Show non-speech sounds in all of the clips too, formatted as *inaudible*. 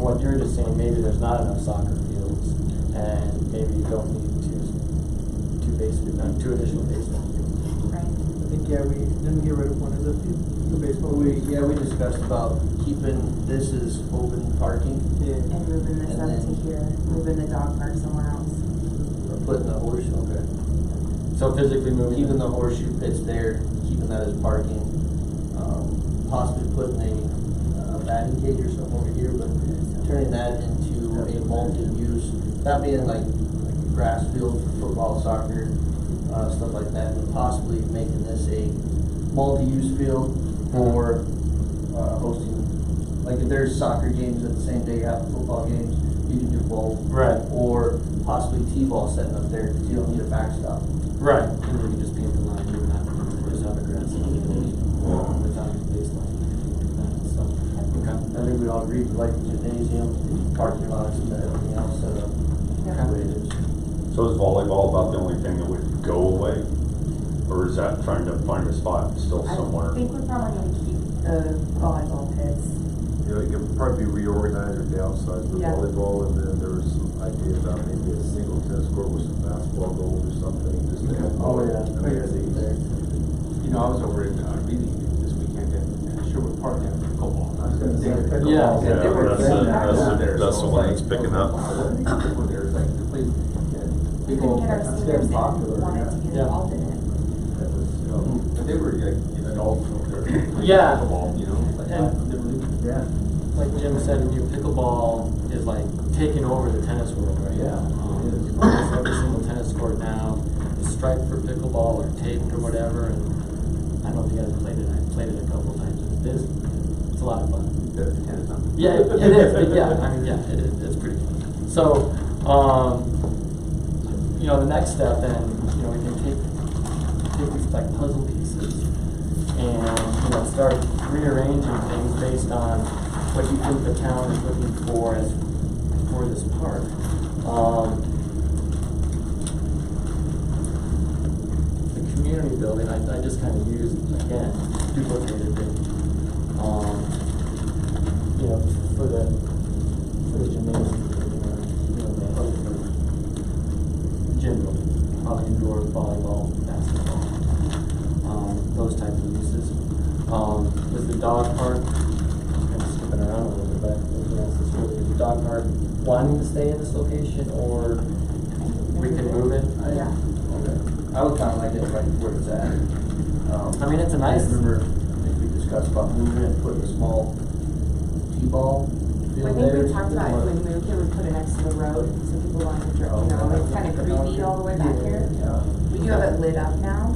what you're just saying, maybe there's not enough soccer fields, and maybe you don't need two, two basement, uh, two additional basement fields. Right. I think, yeah, we didn't get rid of one of the, the But baseball. we, yeah, we discussed about keeping this as open parking, Yeah. And moving this And up to then- here, moving the dog park somewhere else. or putting the horseshoe, okay. So physically moving. Keeping the horseshoe pits there, keeping that as parking, um, possibly putting a, uh, batting cage or something over here, but turning that into a multi-use, that being like like grass field for football, soccer, uh, stuff like that, but possibly making this a multi-use field for, uh, hosting, like if there's soccer games at the same day you have football games, you can do both. Right. Or possibly T-ball setting up there, because you don't need a backstop. Right, and then you can just paint the line, you wouldn't have to just have a grass field without a baseline, anything like that, so. I think we all agree, we like the gymnasium, parking lots, and everything else set up Yeah. the way it is. So is volleyball about the only thing that would go away? Or is that trying to find a spot still I somewhere? think we're probably gonna keep the volleyball pits. Yeah, it could probably be reorganized or downsized with Yeah. volleyball, and then there was some idea about maybe a single tennis court with some basketball goals or something, just to have. Oh, yeah. amenities. You know, I was over in, uh, reading this weekend at at Sherwood Park, they had pickleball. I was gonna say, They- pickleball. Yeah. Yeah, they were that's doing it, that that's down it, there, that's so the it's one like- that's picking up. Wow, these people there, it's like, the place, yeah, We people- couldn't get our it's seniors getting in, popular, wanted to yeah. get Yeah. involved in it. That was, you know, But they were, like, you know, adults over there. playing Yeah. Pickleball, you know, like, I And- never knew. Yeah. Like Jim said, new pickleball is like taking over the tennis world right Yeah, now. Um, it is. Almost every single tennis court now is striped for pickleball or taped or whatever, and I don't know if you guys played it, I played it a couple times, it is, it's a lot of fun. That's the tennis, huh? Yeah, it it is, it- yeah, I mean, yeah, it is, it's pretty fun. So, um, you know, the next step then, you know, we can take, take these like puzzle pieces and, you know, start rearranging things based on what you think the town is looking for as, for this park. Um, the community building, I, I just kind of used, again, duplicated it. Um, you know, for the, for the gymnasium, you know, the other for gym building, probably indoor volleyball, basketball, um, those type of uses. Um, with the dog park, I'm skipping around a little bit, but anything else that's really, the dog park wanting to stay in this location, or we can move it? I- Yeah. okay. I would kinda like it right where it's at. Um, I mean, it's a nice- I Remember, I think we discussed about moving and putting a small T-ball I field think there. we talked about if we moved, it was put it next to the road, so people wanted to, dri- you know, it's kind of creepy all the way back here. Oh, Yeah. We do have it lit up now,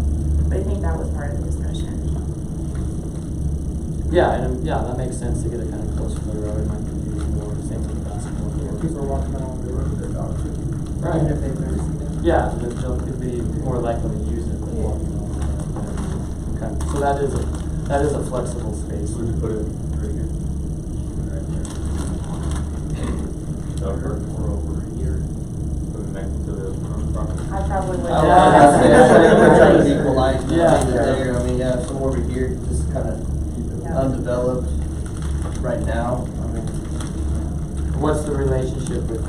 but I think that was part of the discussion. Yeah, and, yeah, that makes sense to get it kind of closer to the road, it might be used more, same with basketball. Yeah, people are walking out on the road with their dogs, Right. even if they've never seen them. Yeah, the jump could be more likely to use it than walking on. it. Okay, so that is, a that is a flexible space. So Mm-hmm. we put it right here. Right there. Over, or over here, put it next to the front property. I probably would. I would say, *laughs* we're trying to equalize, Yeah. between the there, I mean, yeah, some over here, just kinda *laughs* Yeah. undeveloped right now, I mean, What's the relationship with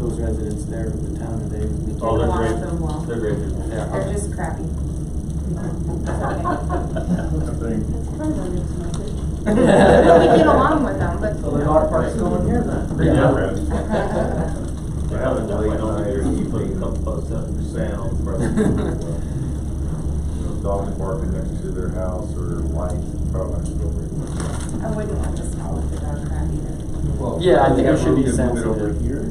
those residents there with the town? Are they? Oh, they're great. They're great people. they are- They're just *laughs* crappy. We *laughs* get along with them, but. *laughs* So the dog park's still in here then? Great job, Brad. I haven't done like nine years, you put a couple bucks up for sale. Dog parking next to their house or lights, probably. I wouldn't want to smell if the dog crap either. Yeah, I think it should be Move it over sensitive. here?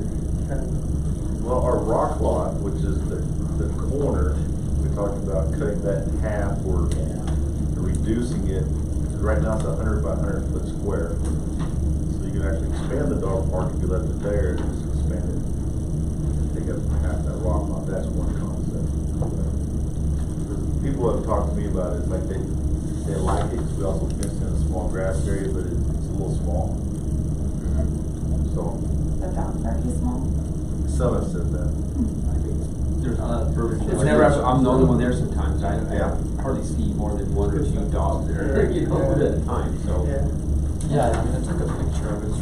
Kind of. Well, our rock lot, which is the, the corner, we talked about cutting that in half or reducing it. 'cause Right now it's a hundred by hundred foot square. So you can actually expand the dog park if you left it there, and just expand it. Take up half that rock lot, that's one concept. The People have talked to me about it, it's like they, they like it, 'cause we also fenced in a small grass area, but it's, it's a little small. So, The dog park is small. Summit said that. I think There's a lot uh, of verbiage. It's never- I'm the only one there sometimes, I, Yeah. I hardly see more than one or two dogs there, you know, at a time, so. Yeah. Yeah,